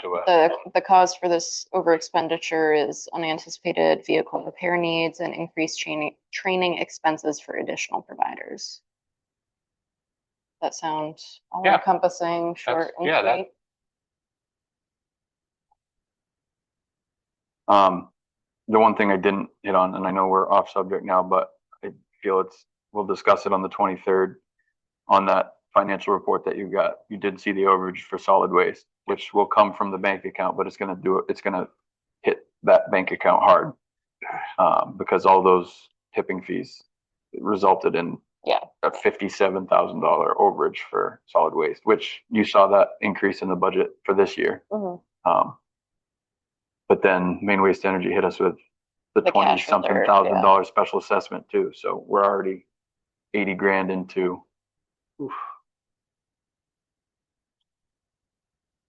to uh, us. The, the cause for this over expenditure is unanticipated vehicle repair needs and increased training, training expenses for additional providers. That sound all Yeah. encompassing, short and yeah, that- sweet. Um, the one thing I didn't hit on, and I know we're off subject now, but I feel it's, we'll discuss it on the twenty-third. On that financial report that you got, you did see the overage for solid waste, which will come from the bank account, but it's gonna do, it's gonna hit that bank account hard. Um, because all those tipping fees resulted in Yeah. a fifty-seven thousand dollar overage for solid waste, which you saw that increase in the budget for this year. Mhm. Um, but then Main Waste Energy hit us with the The twenty cash something reserve, thousand yeah. dollar special assessment too, so we're already eighty grand into. oof.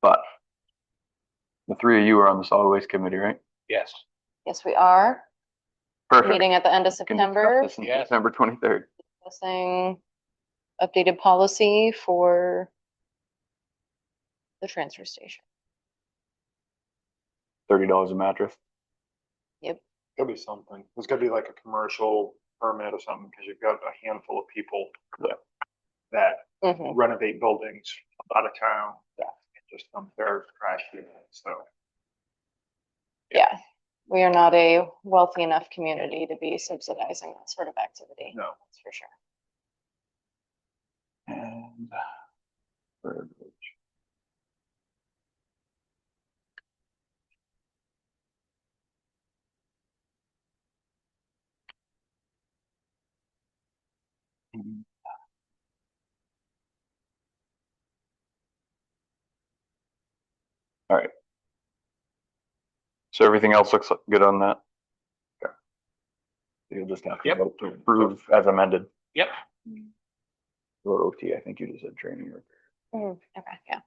But the three of you are on the solid waste committee, right? Yes. Yes, we are. Perfect. Meeting at the end Can of discuss September, this on Yes. September twenty-third. discussing updated policy for the transfer station. thirty dollars a mattress. Gotta be something. There's gotta be like a commercial permit or something, because you've got a handful of people Yeah. that Mhm. renovate buildings out of town. that Just unfair trash, so. Yeah, we are not a wealthy enough community to be subsidizing that sort of activity. No. That's for sure. And uh, verbiage. Mm. All right. So everything else looks good on that? Okay. You'll just have to Yep. vote to approve as amended. Yep. Or OT, I think you just said training. or- Mhm, Okay, yeah.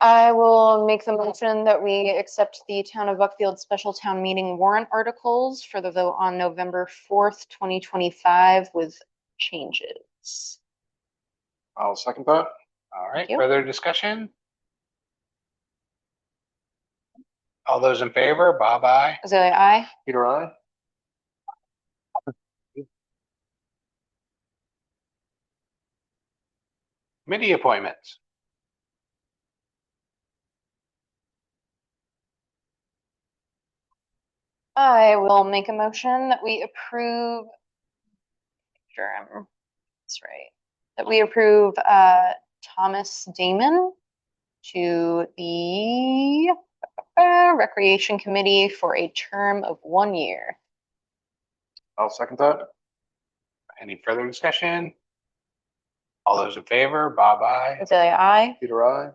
I will make the motion that we accept the Town of Buckfield Special Town Meeting warrant articles for the vote on November fourth, twenty twenty-five with changes. I'll second that. All right, Thank you. further discussion? All those in favor, bye bye. Azalea, aye? Peter, I. Committee appointments. I will make a motion that we approve. Sure, I'm, that's right. That we approve, uh, Thomas Damon to the uh, Recreation Committee for a term of one year. I'll second that. Any further discussion? All those in favor, bye bye. Azalea, aye. Peter, I.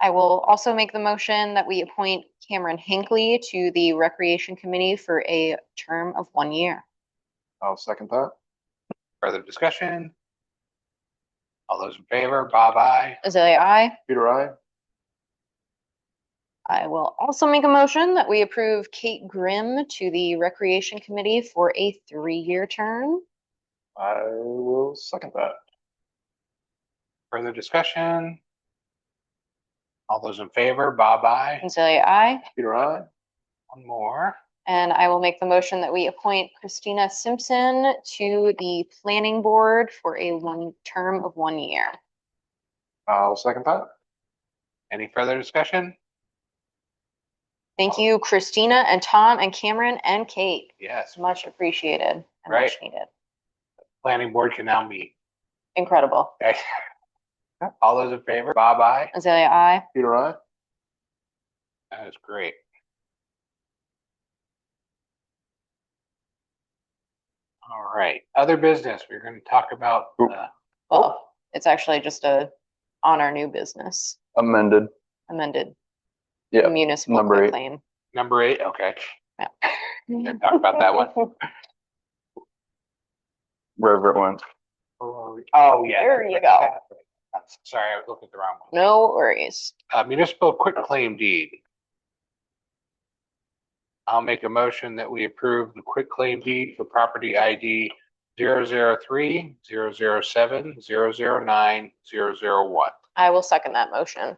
I will also make the motion that we appoint Cameron Hinckley to the Recreation Committee for a term of one year. I'll second that. Further discussion? All those in favor, bye bye. Azalea, aye. Peter, I. I will also make a motion that we approve Kate Grimm to the Recreation Committee for a three-year term. I will second that. Further discussion? All those in favor, bye bye. Azalea, aye. Peter, I. One more. And I will make the motion that we appoint Christina Simpson to the Planning Board for a one, term of one year. I'll second that. Any further discussion? Thank you, Christina and Tom and Cameron and Kate. Yes, Much appreciated and Right. much needed. planning board can now meet. Incredible. Okay. All those in favor, bye bye. Azalea, aye. Peter, I. That is great. All right, other business, we're gonna talk about, Oop. uh, Oh. Well, it's actually just a, on our new business Amended, amended Yeah, municipal number eight. claim. number eight, okay, Didn't talk about that one. wherever it went. Oh, yeah. There you go. Sorry, I was looking at the wrong one. No worries. Uh, municipal quitclaim deed. I'll make a motion that we approve the quitclaim deed for property ID zero zero three, zero zero seven, zero zero nine, zero zero one. I will second that motion.